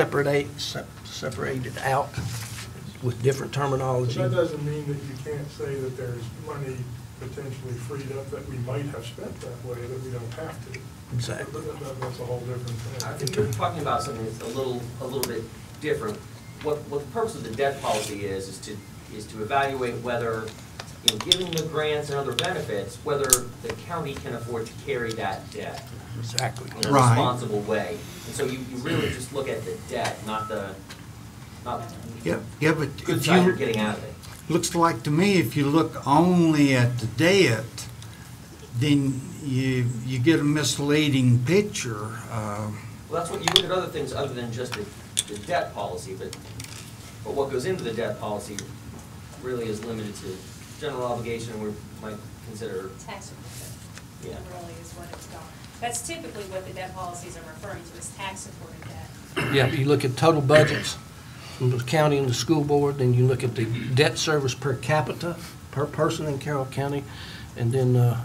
separate, sep- separated out with different terminology. But that doesn't mean that you can't say that there's money potentially freed up that we might have spent that way, that we don't have to. Exactly. That- that- That's a whole different thing. I think you're talking about something that's a little, a little bit different. What, what the purpose of the debt policy is, is to, is to evaluate whether, in giving the grants and other benefits, whether the county can afford to carry that debt Exactly. in a Right. responsible way. And so you, you really just look at the debt, not the, not Yeah, yeah, but the good if side you're you, getting out of it. looks like to me, if you look only at the debt, then you, you get a misleading picture. Uh, Well, that's what, you look at other things other than just the, the debt policy, but, but what goes into the debt policy really is limited to general obligation, we might consider, taxable debt. Yeah. Really is what it's called. That's typically what the debt policies are referring to, is tax-supported debt. Yeah, you look at total budgets from the county and the school board, then you look at the debt service per capita, per person in Carroll County, and then, uh,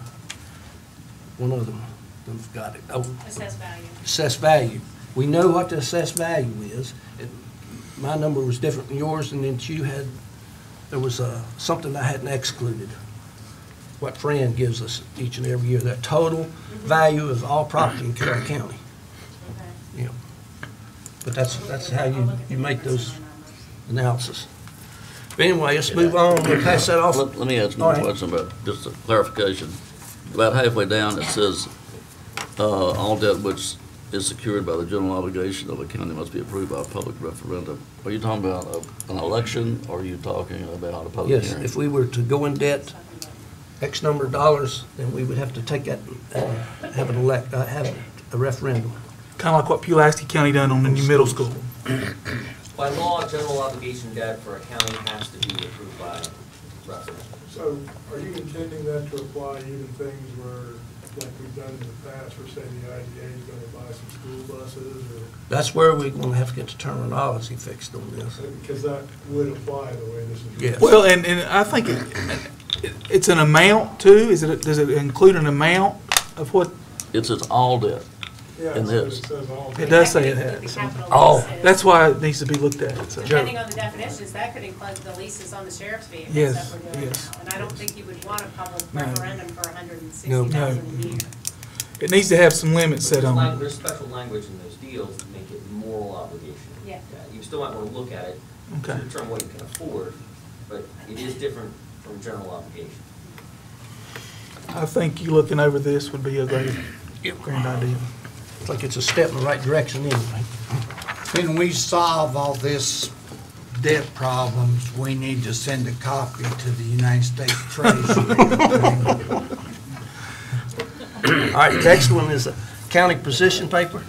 one of them, they've got it, oh, Assessed value. assessed value. We know what the assessed value is. It- My number was different than yours, and then you had, there was uh, something I hadn't excluded. What Fran gives us each and every year, that total value of all property in Carroll County. Okay. Yeah. But that's, that's how I'll you, look at the you make numbers those and our numbers. analysis. But anyway, let's move on, we'll pass that off. Let let me ask All one right. question about, just a clarification. About halfway down, it says, uh, "All debt which is secured by the general obligation of the county must be approved by a public referendum." Are you talking about a- an election, or are you talking about a public Yes, hearing? if we were to go in debt X number of dollars, then we would have to take that, and have an elect, uh, have a referendum. Kind of like what Pulaski County done on the new middle school. by law, general obligation debt for a county has to be approved by referendum. So are you intending that to apply even things where, like we've done in the past, where say the IDA is going to buy some school buses or, That's where we're gonna have to get the terminology fixed on this. because that would apply the way this is. Yes. Well, and, and I think it, it- it's an amount too, is it, does it include an amount of what? It says all debt. Yeah, And so it this. says all. It does say could that, include the so- capital Oh, leases. That's why it needs to be looked at, so. Depending on the definitions, that could include the leases on the sheriff's vehicles that Yes, we're doing yes. now. And I don't think you would want a public No. referendum for hundred and No. sixty No. thousand a year. It needs to have some limits set There's on lang- it. There's special language in those deals that make it moral obligation. Yeah. You still might want to look at it to Okay. determine what you can afford, but it is different from general obligation. I think you looking over this would be a great, grand idea. It's like it's a step in the right direction anyway. When we solve all this debt problems, we need to send a copy to the United States Treasury. All right, next one is a county position paper.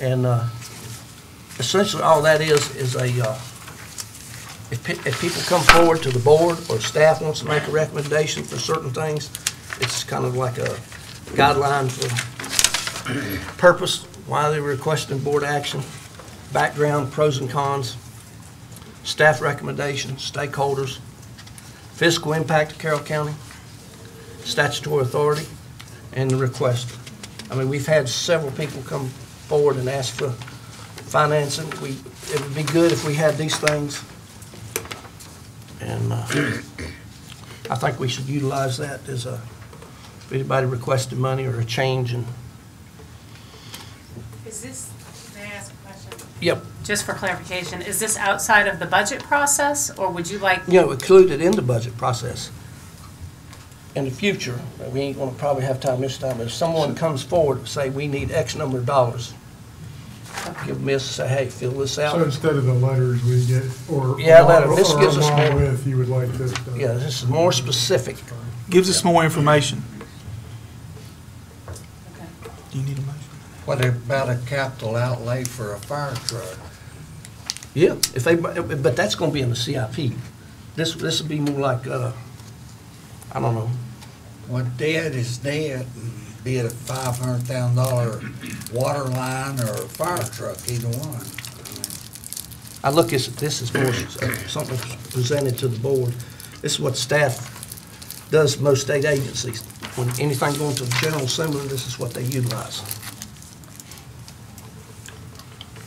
And uh, essentially, all that is, is a, uh, if pe- if people come forward to the board or staff wants to make a recommendation for certain things, it's kind of like a guideline for purpose, why they're requesting board action, background, pros and cons, staff recommendations, stakeholders, fiscal impact of Carroll County, statutory authority and the request. I mean, we've had several people come forward and ask for financing. We, it would be good if we had these things. And uh, I think we should utilize that as a, if anybody requested money or a change in, Is this, may I ask a question? yep, Just for clarification, is this outside of the budget process, or would you like, you know, included in the budget process. In the future, but we ain't gonna probably have time this time, but if someone comes forward and say, we need X number of dollars, give them this, say, hey, fill this out. So instead of the letters we get, or. Yeah, letter. This or gives us along more- with, you would like this done. Yeah, this is more specific. Gives us more information. Okay. Do you need a motion? What about a capital outlay for a fire truck? Yeah. If they, but that's gonna be in the CIP. This, this would be more like, uh, I don't know, What debt is debt, and be it a five hundred thousand dollar water line or a fire truck, either one. I look at, this is more s- something presented to the board. This is what staff does most state agencies. When anything going to the general assembly, this is what they utilize.